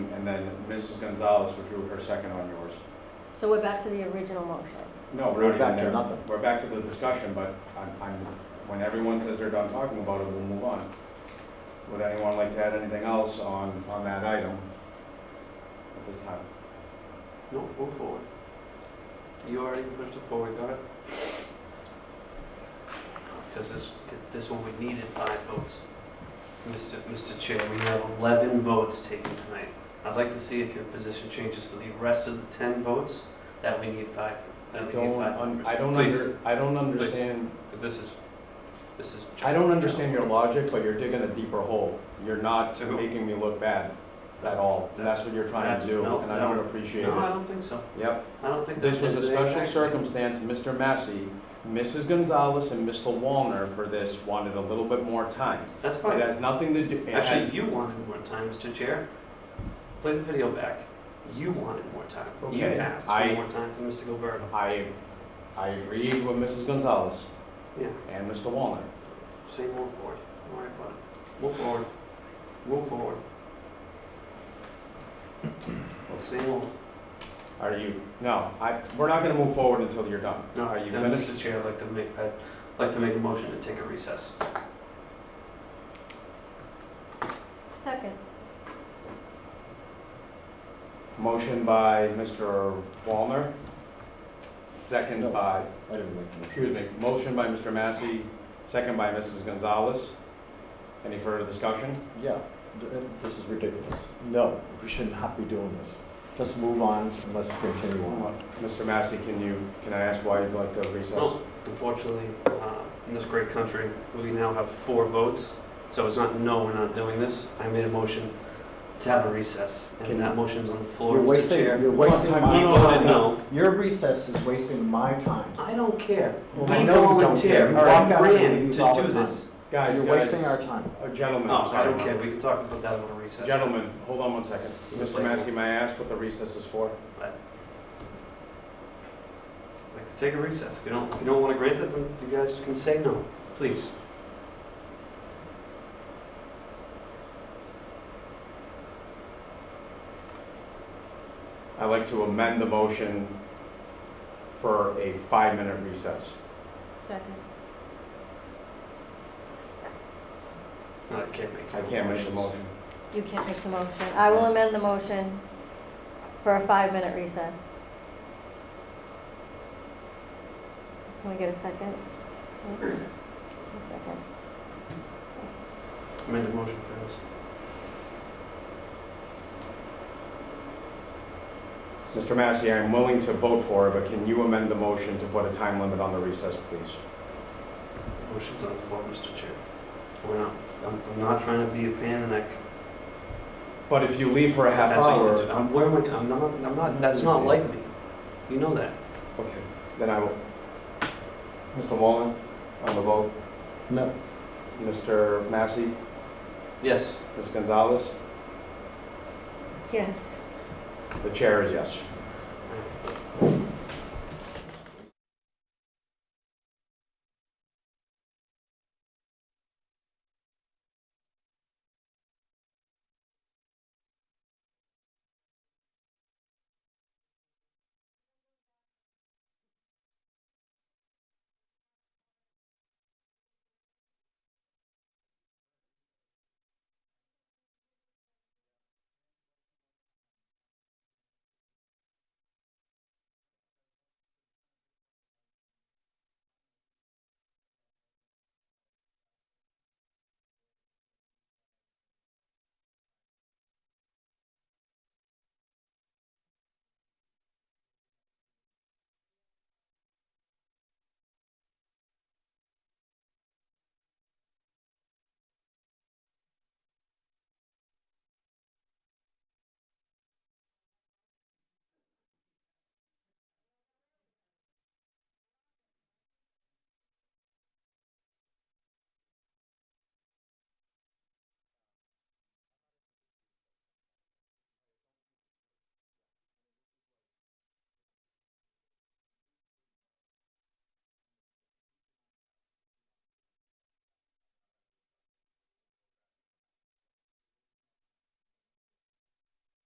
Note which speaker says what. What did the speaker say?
Speaker 1: and then Mrs. Gonzalez withdrew her second on yours.
Speaker 2: So we're back to the original motion.
Speaker 1: No,
Speaker 3: We're
Speaker 1: we're not
Speaker 3: back
Speaker 1: even
Speaker 3: to
Speaker 1: there.
Speaker 3: nothing.
Speaker 1: We're back to the discussion, but I'm, I'm, when everyone says they're done talking about it, we'll move on. Would anyone like to add anything else on, on that item at this time?
Speaker 4: No, move forward. You already pushed it forward, go ahead. Because this, this one, we needed five votes. Mr. Mr. Chair, we have 11 votes taken tonight. I'd like to see if your position changes to the rest of the 10 votes, that we need five, that we need
Speaker 1: Don't,
Speaker 4: five
Speaker 1: un-
Speaker 4: members.
Speaker 1: I don't
Speaker 4: Please,
Speaker 1: under, I don't understand,
Speaker 4: Because this is, this is.
Speaker 1: I don't understand your logic, but you're digging a deeper hole. You're not
Speaker 4: To who?
Speaker 1: making me look bad at all. That's what you're trying to
Speaker 4: That's-
Speaker 1: do,
Speaker 4: no,
Speaker 1: and I
Speaker 4: no.
Speaker 1: don't appreciate
Speaker 4: No, I
Speaker 1: it.
Speaker 4: don't think so.
Speaker 1: Yep,
Speaker 4: I don't think.
Speaker 1: this
Speaker 4: that
Speaker 1: was a
Speaker 4: there's any
Speaker 1: special
Speaker 4: fact-
Speaker 1: circumstance, Mr. Massey, Mrs. Gonzalez and Mr. Wallner for this wanted a little bit more time.
Speaker 4: That's fine.
Speaker 1: It has nothing to do, it has-
Speaker 4: Actually, you wanted more time, Mr. Chair. Play the video back. You wanted more time. You
Speaker 1: Okay,
Speaker 4: asked
Speaker 1: I-
Speaker 4: for more time to Mr. Gilberto.
Speaker 1: I, I agreed with Mrs. Gonzalez
Speaker 4: Yeah,
Speaker 1: and Mr. Wallner.
Speaker 4: say move forward. Don't worry about it. Move forward. Move forward. Let's say move.
Speaker 1: Are you, no, I, we're not gonna move forward until you're done.
Speaker 4: No,
Speaker 1: Are you
Speaker 4: then,
Speaker 1: finished?
Speaker 4: Mr. Chair, I'd like to make, I'd like to make a motion to take a recess.
Speaker 2: Second.
Speaker 1: Motion by Mr. Wallner, second by,
Speaker 3: I didn't make the motion.
Speaker 1: excuse me, motion by Mr. Massey, second by Mrs. Gonzalez. Any further discussion?
Speaker 3: Yeah, th- this is ridiculous. No, we should not be doing this. Let's move on and let's continue on.
Speaker 1: Mr. Massey, can you, can I ask why you'd like to recess?
Speaker 4: No, unfortunately, uh, in this great country, we now have four votes, so it's not, no, we're not doing this. I made a motion to have a recess,
Speaker 3: Can-
Speaker 4: and that motion's on the floor,
Speaker 3: You're
Speaker 4: Mr.
Speaker 3: wasting,
Speaker 4: Chair.
Speaker 3: you're wasting
Speaker 1: One
Speaker 3: my
Speaker 1: time.
Speaker 4: You voted no.
Speaker 3: Your recess is wasting my time.
Speaker 4: I don't care.
Speaker 3: Well,
Speaker 4: We
Speaker 3: I know you don't care. You Oh,
Speaker 4: volunteer. We
Speaker 3: walk out of the
Speaker 4: ran to
Speaker 3: meetings all the
Speaker 4: do
Speaker 3: time.
Speaker 4: this.
Speaker 1: Guys,
Speaker 3: You're
Speaker 1: guys,
Speaker 3: wasting our time.
Speaker 1: uh, gentlemen,
Speaker 4: No,
Speaker 1: I'm
Speaker 4: I
Speaker 1: sorry.
Speaker 4: don't care. We can talk about that on a recess.
Speaker 1: Gentlemen, hold on one second. Mr.
Speaker 4: like-
Speaker 1: Massey, may I ask what the recess is for?
Speaker 4: Like to take a recess. If you don't, if you don't want to grant it, then you guys can say no, please.
Speaker 1: I'd like to amend the motion for a five-minute recess.
Speaker 2: Second.
Speaker 4: No, I can't make.
Speaker 1: I can't make the motion.
Speaker 2: You can't make the motion. I will amend the motion for a five-minute recess. Can we get a second? A second.
Speaker 4: I made a motion for this.
Speaker 1: Mr. Massey, I'm willing to vote for it, but can you amend the motion to put a time limit on the recess, please?
Speaker 4: Motion's Oh, on the floor, Mr. Chair. We're not, I'm, I'm not trying to be a pain in the neck.
Speaker 1: But if you leave for a half
Speaker 4: That's what you
Speaker 1: hour,
Speaker 4: do. I'm, where am I, I'm not, I'm not, that's not like me. You know that.
Speaker 1: okay, then I will. Mr. Wallen, on the vote.
Speaker 3: No,
Speaker 1: Mr. Massey,
Speaker 4: Yes.
Speaker 1: Ms. Gonzalez,
Speaker 2: Yes.
Speaker 1: the chair is yes.